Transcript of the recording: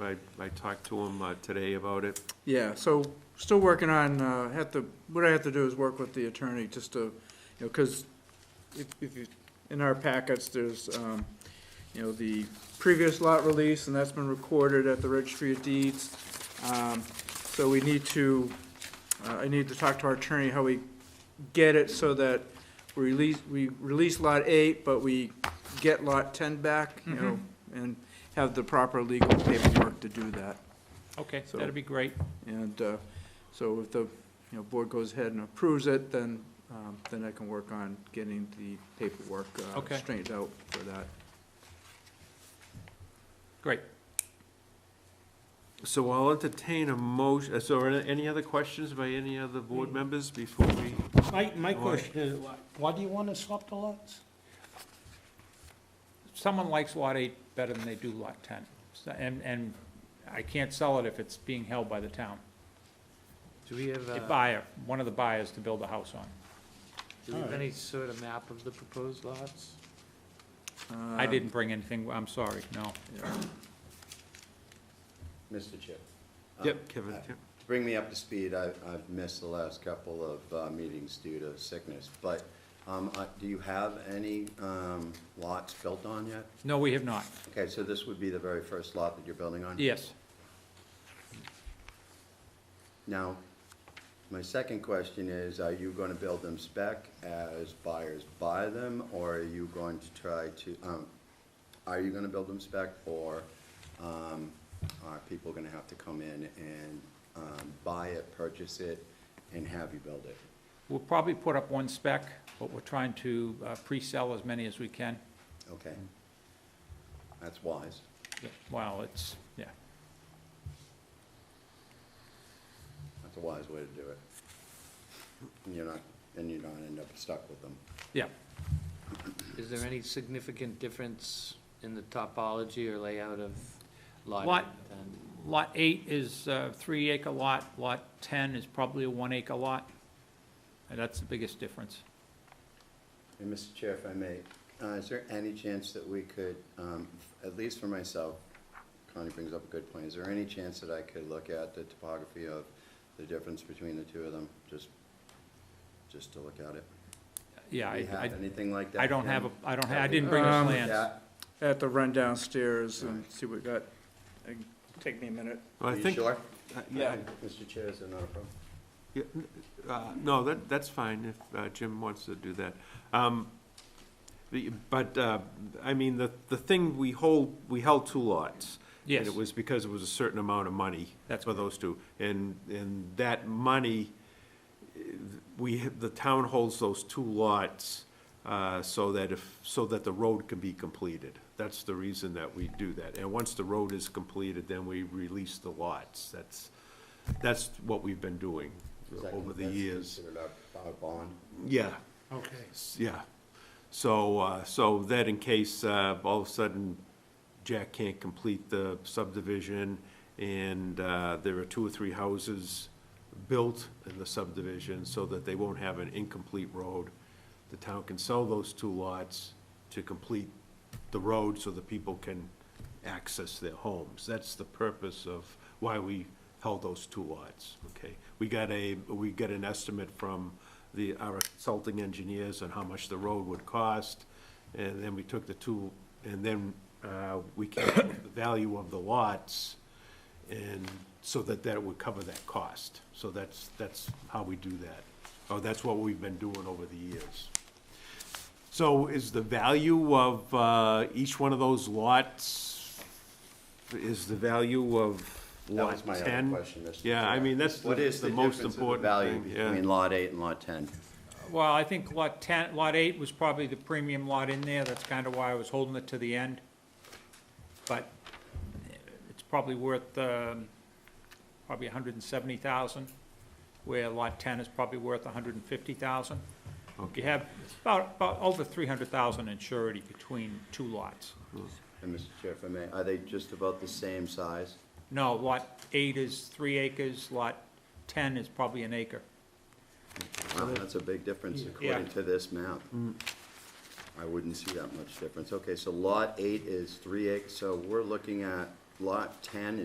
I, I talked to him uh, today about it. Yeah, so, still working on, uh, have to, what I have to do is work with the attorney, just to, you know, because if, if you, in our packets, there's, um, you know, the previous lot release, and that's been recorded at the registry of deeds. Um, so we need to, uh, I need to talk to our attorney how we get it so that we release, we release lot eight, but we get lot ten back, you know, and have the proper legal paperwork to do that. Okay, So- that'd be great. And uh, so if the, you know, board goes ahead and approves it, then, um, then I can work on getting the paperwork uh, Okay. straightened out for that. Great. So I'll entertain a motion, uh, so are there any other questions by any other Mm. board members before we? My, my Why? question is, why- why do you want to swap the lots? Someone likes Lot 8 better than they do Lot 10, So- and, and I can't sell it if it's being held by the town. Do we have, A uh, buyer, one of the buyers to build a house on. do we have any sort of map of the proposed lots? Um, Um, I didn't bring anything, I'm sorry, no. Mr. Chair. uh, Yep, Kevin, uh, yep. To bring me up to speed, I- I've missed the last couple of uh, meetings due to sickness, but um, uh, do you have any um, lots built on yet? No, we have not. Okay, so this would be the very first lot that you're building on? Yes, Now, my second question is, are you going to build them spec as buyers buy them, or are you going to try to, um, are you going to build them spec, or um, are people going to have to come in and um, buy it, purchase it, and have you build it? we'll probably put up one spec, but we're trying to uh, pre-sell as many as we can. Okay. That's wise. Well, it's, yeah, That's a wise way to do it. And you're not, and you don't end up stuck with them. yeah. Is there any significant difference in the topology or layout of lot? Lot- then? Lot 8 is a three-acre lot, Lot 10 is probably a one-acre lot, and that's the biggest difference. And Mr. Chair, if I may, uh, is there any chance that we could, um, at least for myself, Connie brings up a good point, is there any chance that I could look at the topography of the difference between the two of them? Just, just to look at it? Yeah, Do I, you have I- anything like that? I don't have, a again? I don't, ha- I didn't bring the Um, plans. Yeah. I have to run downstairs and see what we got. Uh, Take me a minute. Well, I Are you think- sure? uh, Yeah, Mr. Chair, is there not a problem? Yeah, n- uh, No, that, that's fine if uh, Jim wants to do that. Um, the- But, uh, I mean, the, the thing, we hold, we held two lots. Yes. And it was because it was a certain amount of money. That's For those two. And, and that money, eh, we, ha- the town holds those two lots uh, so that if, so that the road can be completed. That's the reason that we do that. And once the road is completed, then we release the lots. That's, that's what we've been doing Is that- over the that's years. considered our- our bond? Yeah, Okay. s- yeah. So, uh, so that in case, uh, all of a sudden, Jack can't complete the subdivision, and, uh, there are two or three houses built in the subdivision, so that they won't have an incomplete road. The town can sell those two lots to complete the road, so that people can access their homes. That's the purpose of why we held those two lots, okay? We got a, we got an estimate from the, our consulting engineers on how much the road would cost, and then we took the two, and then, uh, we came up with the value of the lots, and so that that would cover that cost. So that's, that's how we do that, Oh, that's what we've been doing over the years. So is the value of uh, each one of those lots, is the value of That lot was my 10? other question, Mr. Yeah, I Chair. mean, that's What the- is the the most difference in the important value thing, yeah. between lot eight and lot ten? Well, I think Lot 10, Lot 8 was probably the premium lot in there, that's kind of why I was holding it to the end. But it's probably worth, um, probably 170,000, where Lot 10 is probably worth 150,000. You have about, about over 300,000 in surety between two lots. And Mr. Chair, if I may, are they just about the same size? No, lot eight is three acres, lot ten is probably an acre. Wow, that's a big difference according to this map. I wouldn't see that much difference. Okay, so lot eight is three acres, so we're looking at lot ten